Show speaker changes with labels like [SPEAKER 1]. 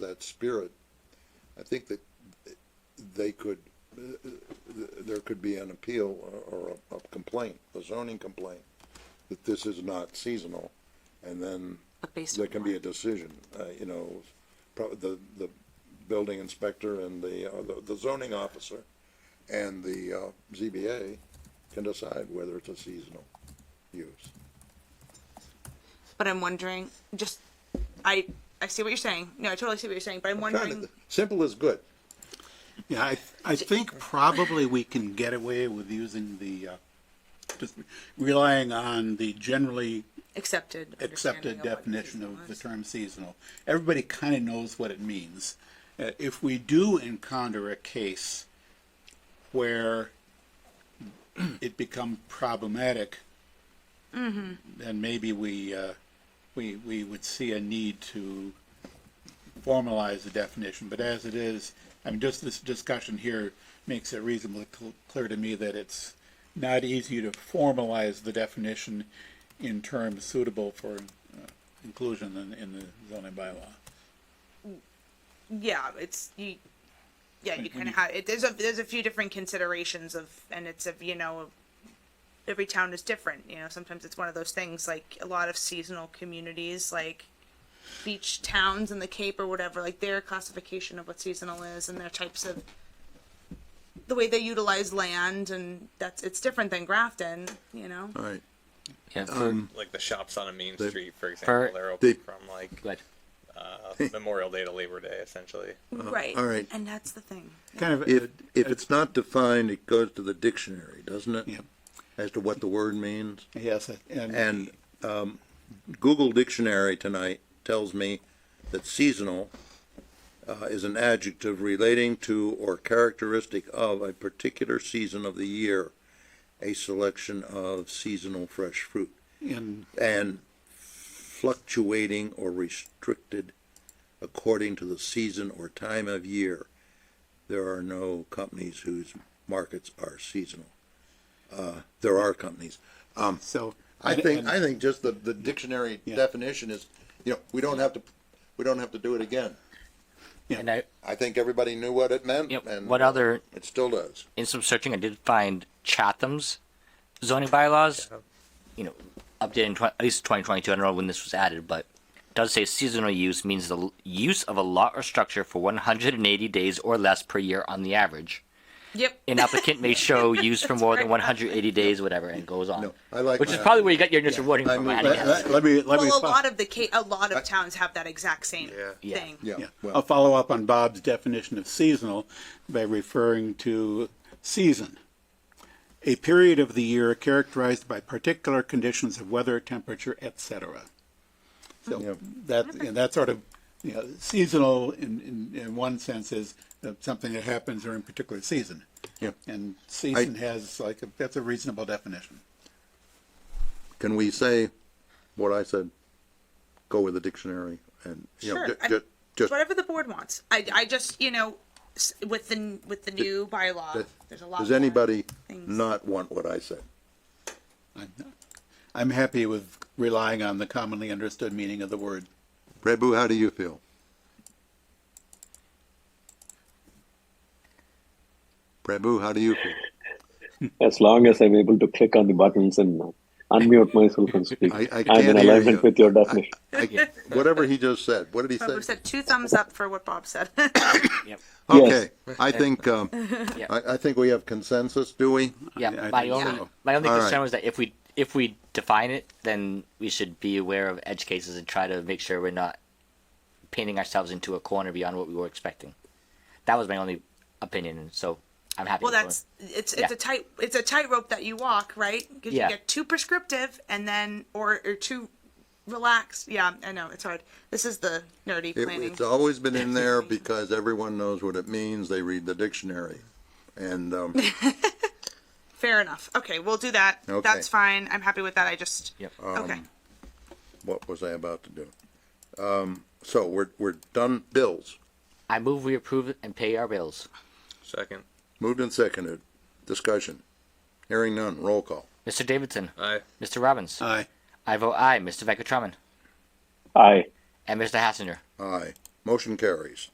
[SPEAKER 1] that spirit, I think that they could, there could be an appeal or a- a complaint, a zoning complaint, that this is not seasonal, and then
[SPEAKER 2] But based
[SPEAKER 1] there
[SPEAKER 2] on
[SPEAKER 1] can
[SPEAKER 2] what?
[SPEAKER 1] be a decision, uh, you know, prob, the, the building inspector and the, uh, the- the zoning officer and the, uh, ZBA can decide whether it's a seasonal use.
[SPEAKER 2] But I'm wondering, just, I, I see what you're saying. No, I totally see what you're saying, but I'm
[SPEAKER 1] Trying to-
[SPEAKER 2] wondering,
[SPEAKER 1] Simple is good.
[SPEAKER 3] Yeah, I, I think probably we can get away with using the, uh, just relying on the generally
[SPEAKER 2] accepted. understanding
[SPEAKER 3] accepted
[SPEAKER 2] of what
[SPEAKER 3] definition of the
[SPEAKER 2] seasonal
[SPEAKER 3] term seasonal. Everybody kind of knows what it means. Uh, If we do encounter a case where it become problematic,
[SPEAKER 2] Mm-hmm.
[SPEAKER 3] then maybe we, uh, we, we would see a need to formalize the definition, but as it is, I mean, just this discussion here makes it reasonably cl- clear to me that it's not easy to formalize the definition in terms suitable for uh, inclusion in, in the zoning bylaw.
[SPEAKER 2] is. Yeah, it's, you, yeah, you
[SPEAKER 3] when
[SPEAKER 2] kind of have, it, there's a, there's a few different considerations of, and it's a, you know, every town is different, you know, sometimes it's one of those things, like, a lot of seasonal communities, like, beach towns in the Cape or whatever, like, their classification of what seasonal is and their types of, the way they utilize land, and that's, it's different than Grafton, you know?
[SPEAKER 4] All right.
[SPEAKER 5] Yeah, for,
[SPEAKER 1] Um,
[SPEAKER 6] like the shops on a main
[SPEAKER 4] They-
[SPEAKER 6] street, for example, they're open
[SPEAKER 4] they-
[SPEAKER 6] from like
[SPEAKER 5] good.
[SPEAKER 6] uh, Memorial Day to Labor Day, essentially.
[SPEAKER 2] Right.
[SPEAKER 4] all right.
[SPEAKER 2] And that's the thing.
[SPEAKER 3] Kind of,
[SPEAKER 4] If, if it's not defined, it goes to the dictionary, doesn't it?
[SPEAKER 3] Yep.
[SPEAKER 4] As to what the word means.
[SPEAKER 3] yes, and
[SPEAKER 4] And um, Google Dictionary tonight tells me that seasonal uh, is an adjective relating to or characteristic of a particular season of the year, a selection of seasonal fresh fruit
[SPEAKER 3] in,
[SPEAKER 4] and fluctuating or restricted according to the season or time of year. There are no companies whose markets are seasonal. Uh, there are companies.
[SPEAKER 3] so.
[SPEAKER 1] I
[SPEAKER 3] and-
[SPEAKER 1] think,
[SPEAKER 3] and-
[SPEAKER 1] I think just the, the dictionary
[SPEAKER 3] Yeah.
[SPEAKER 1] definition is, you know, we don't have to, we don't have to do it again.
[SPEAKER 5] And I,
[SPEAKER 1] I think everybody knew what it meant
[SPEAKER 5] Yep.
[SPEAKER 1] and.
[SPEAKER 5] What other-
[SPEAKER 1] It still does.
[SPEAKER 5] in some searching, I did find Chatham's zoning bylaws. You know, updated in tw- at least 2022. I don't know when this was added, but it does say seasonal use means the l- use of a lot or structure for 180 days or less per year on the average.
[SPEAKER 2] Yep.
[SPEAKER 5] An applicant may show use for more than
[SPEAKER 2] right.
[SPEAKER 5] 180 days, whatever, and it goes on.
[SPEAKER 1] No, I like
[SPEAKER 5] Which is
[SPEAKER 1] that.
[SPEAKER 5] probably where you got your initial wording
[SPEAKER 1] I
[SPEAKER 5] from.
[SPEAKER 1] mean,
[SPEAKER 5] I
[SPEAKER 1] that-
[SPEAKER 3] Let,
[SPEAKER 5] guess.
[SPEAKER 3] let- let me, let me.
[SPEAKER 2] Well, a
[SPEAKER 3] fo-
[SPEAKER 2] lot of the ca- a lot of towns have that exact same
[SPEAKER 5] Yeah.
[SPEAKER 2] thing.
[SPEAKER 1] Yeah,
[SPEAKER 3] Yeah, Oh, I'll
[SPEAKER 1] well,
[SPEAKER 3] follow up on Bob's definition of seasonal by referring to season. A period of the year characterized by particular conditions of weather, temperature, etc.
[SPEAKER 1] Yeah.
[SPEAKER 3] So
[SPEAKER 1] Mm-hmm.
[SPEAKER 3] that, and that sort of, you know, seasonal in, in, in one sense is uh, something that happens during a particular season.
[SPEAKER 4] Yeah.
[SPEAKER 3] And season has like, a- that's a reasonable definition.
[SPEAKER 4] Can we say what I said? Go with the dictionary and, you know,
[SPEAKER 2] Sure,
[SPEAKER 4] ju-
[SPEAKER 2] I-
[SPEAKER 4] ju- just,
[SPEAKER 2] Whatever the board wants. I, I just you know s- with the n- with the new bylaw,
[SPEAKER 4] does-
[SPEAKER 2] there's a lot.
[SPEAKER 4] does
[SPEAKER 2] more
[SPEAKER 4] anybody
[SPEAKER 2] things.
[SPEAKER 4] not want what I said?
[SPEAKER 3] I'm, I'm happy with relying on the commonly understood meaning of the word.
[SPEAKER 4] Prabhu, how do you feel? Prabhu, how do you feel?
[SPEAKER 7] as long as I'm able to click on the buttons and unmute myself and speak.
[SPEAKER 4] I- I
[SPEAKER 7] am
[SPEAKER 4] can't
[SPEAKER 7] in
[SPEAKER 4] hear
[SPEAKER 7] alignment
[SPEAKER 4] you.
[SPEAKER 7] with your definition.
[SPEAKER 4] I- Whatever he just said, what did he
[SPEAKER 2] Bob
[SPEAKER 4] say?
[SPEAKER 2] said two thumbs up for what Bob said.
[SPEAKER 4] Okay, I think, um,
[SPEAKER 5] Yeah.
[SPEAKER 4] I, I think we have consensus, do we?
[SPEAKER 5] Yeah,
[SPEAKER 3] I- I
[SPEAKER 5] my
[SPEAKER 3] think
[SPEAKER 5] only
[SPEAKER 3] so.
[SPEAKER 5] my only
[SPEAKER 4] All
[SPEAKER 5] concern
[SPEAKER 4] right.
[SPEAKER 5] was that if we if we define it, then we should be aware of edge cases and try to make sure we're not painting ourselves into a corner beyond what we were expecting. That was my only opinion, and so I'm happy.
[SPEAKER 2] well,
[SPEAKER 5] with
[SPEAKER 2] that's it's it's
[SPEAKER 5] Yeah.
[SPEAKER 2] a tight it's a tightrope that you walk, right? Because
[SPEAKER 5] Yeah.
[SPEAKER 2] you get too prescriptive and then or or too relaxed. Yeah, I know it's hard. This is the nerdy
[SPEAKER 4] It-
[SPEAKER 2] planning.
[SPEAKER 4] It's always been in there because everyone knows what it means, they read the dictionary. And, um,
[SPEAKER 2] Fair enough. Okay, we'll do that.
[SPEAKER 4] Okay. Um,
[SPEAKER 2] That's fine. I'm happy with that. I just
[SPEAKER 5] Yep.
[SPEAKER 2] okay.
[SPEAKER 4] what was I about to do? Um, so we're, we're done bills.
[SPEAKER 5] I move we approve it and pay our bills.
[SPEAKER 6] Second.
[SPEAKER 4] Moved and seconded. Discussion. Hearing none. Roll call.
[SPEAKER 5] Mr. Davidson,
[SPEAKER 6] Aye.
[SPEAKER 5] Mr. Robbins,
[SPEAKER 3] Aye.
[SPEAKER 5] I vote aye. Mr. Veckatraman
[SPEAKER 7] Aye.
[SPEAKER 5] and Mr. Hassinger.
[SPEAKER 4] Aye. Motion carries.